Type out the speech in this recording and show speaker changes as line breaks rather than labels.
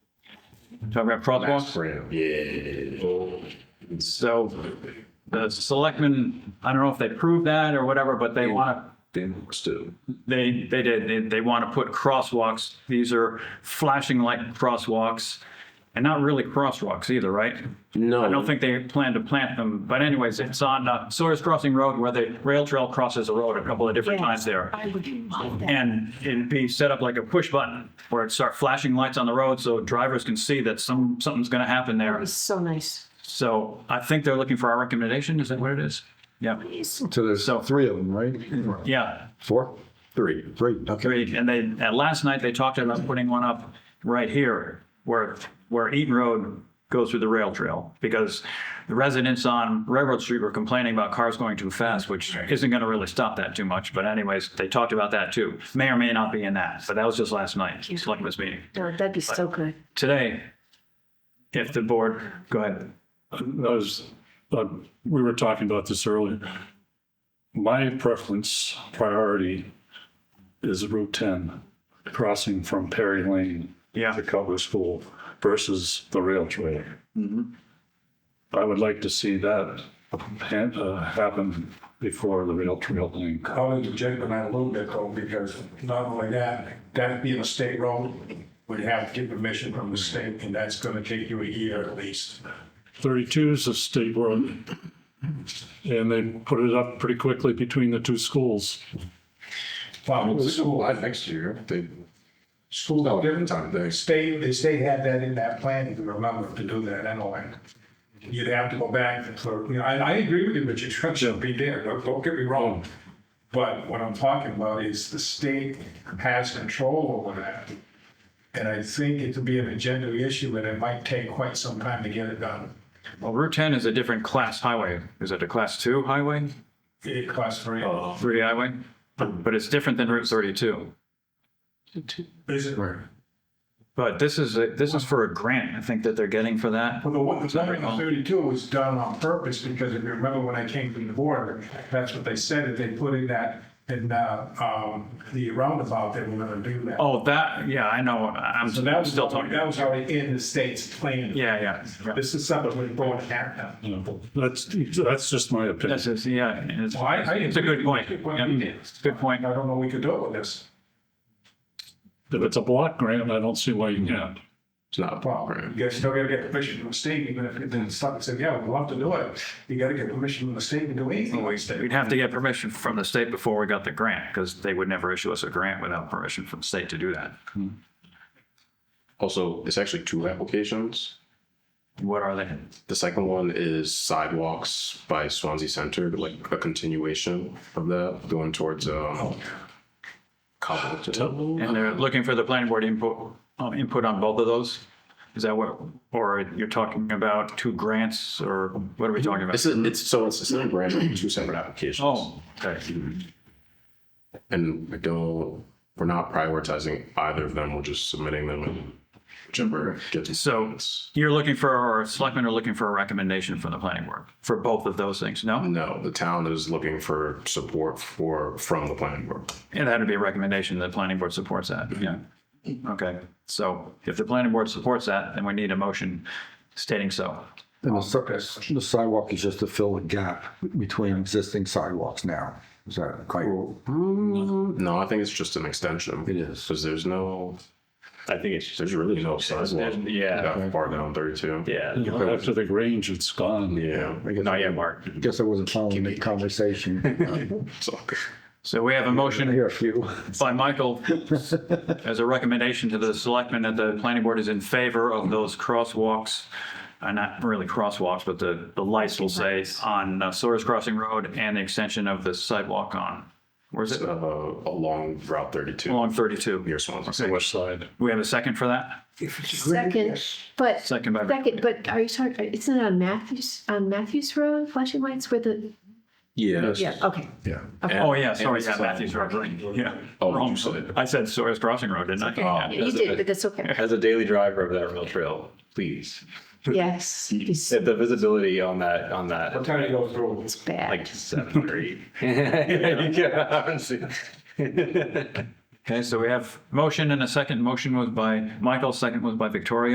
Talking about crosswalks?
Yeah.
So the selectmen, I don't know if they proved that or whatever, but they want to
Then still.
They, they did, they, they want to put crosswalks, these are flashing light crosswalks, and not really crosswalks either, right?
No.
I don't think they plan to plant them, but anyways, it's on uh, Sawyer's Crossing Road where the rail trail crosses the road a couple of different times there.
I would love that.
And it'd be set up like a push button where it'd start flashing lights on the road so drivers can see that some, something's going to happen there.
It's so nice.
So I think they're looking for our recommendation, is that what it is? Yeah,
So there's
So-
three of them, right?
yeah.
Four?
Three.
Three, okay.
Great, and they, and last night they talked about putting one up right here where, where Eaton Road goes through the rail trail because the residents on Railroad Street were complaining about cars going too fast, which isn't going to really stop that too much. But anyways, they talked about that too. May or may not be in that, but that was just last night, selectmen's meeting.
No, that'd be so good.
Today, if the board, go ahead.
I was, uh, we were talking about this earlier. My preference, priority is Route 10, crossing from Perry Lane
Yeah.
to Cutler School versus the rail trail. I would like to see that han- uh, happen before the rail trail thing.
I'll interject on that a little bit though, because not only that, that being a state road, would have to get permission from the state, and that's gonna take you a year at least.
32 is a state road. And they put it up pretty quickly between the two schools.
Well, the school,
July next year, they,
school,
no,
didn't-
different time,
the
they,
state, the state had that in that plan, if you remember, to do that anyway. You'd have to go back for, you know, I, I agree with you, but you should be there, don't, don't get me wrong. But what I'm talking about is the state has control over that. And I think it could be an agenda issue, and it might take quite some time to get it done.
Well, Route 10 is a different class highway. Is it a class two highway,
It costs three.
three highway? But it's different than Route 32.
Is it? For
But this is, a- this is for a grant, I think, that they're getting for that.
the one, the number
um,
in thirty-two was done on purpose, because if you remember when I came from the board, that's what they said, that they put in that, in, uh, um, the roundabout, they were gonna do that.
Oh, that, yeah, I know, I'm
So that
I'm
was,
still talking.
that was already in the state's plan.
Yeah, yeah, yeah.
This is something we're going to have now.
That's, that's just my opinion.
This is, yeah, and it's,
Well, I- I-
it's a good point. Yeah, Good point.
I don't know what we could do with this.
If it's a block grant, I don't see why you can't.
it's not a
Well,
problem.
you guys still gotta get permission from the state, even if then something said, yeah, we'd love to do it. You gotta get permission from the state to do
Oh,
anything. like that.
We'd have to get permission from the state before we got the grant, because they would never issue us a grant without permission from the state to do that.
Also, it's actually two applications.
What are they?
The second one is sidewalks by Swansea Center, like a continuation of that, going towards, um, Cobble.
And they're looking for the planning board input, um, input on both of those? Is that what, or you're talking about two grants, or what are we talking about?
This is, it's, so it's, it's not a brand new, two separate applications.
Oh, okay.
And we don't, we're not prioritizing either of them, we're just submitting them and whichever gets.
So you're looking for, or selectmen are looking for a recommendation from the planning board for both of those things, no?
No, the town is looking for support for, from the planning board.
And that'd be a recommendation, the planning board supports that, yeah. Okay, so if the planning board supports that, then we need a motion stating so.
And the si- the sidewalk is just to fill the gap between existing sidewalks now. Is that quite?
No, I think it's just an extension.
It is.
Because there's no. I think it's. There's really no sidewalk. Yeah. Far down thirty-two.
Yeah.
After the range, it's gone.
Yeah.
Not yet, Mark. Guess I wasn't following the conversation.
It's all good.
So we have a
I
motion
hear a few.
by Michael as a recommendation to the selectmen that the planning board is in favor of those crosswalks, uh, not really crosswalks, but the, the lights will say on uh, Soares Crossing Road and the extension of the sidewalk on, where's it?
Uh, along Route thirty-two,
Along 32.
near Swansea.
The west side.
We have a second for that?
Second, but,
Second by.
second, but are you talking, isn't it on Matthews, on Matthews Road, flashing lights where the,
Yeah.
yeah, okay.
Oh, yeah, sorry, yeah, Matthews Road, right, yeah.
Oh,
Wrong.
you said- Oh.
I said Sawyer's Crossing Road, didn't I?
Yeah, You did, but that's okay.
as a daily driver of that rail trail, please.
Yes, it's
The visibility on that, on that,
What time do you go through?
it's bad.
like seven or eight. You can't honestly.
Okay, so we have motion and a second. Motion was by Michael, second was by Victoria.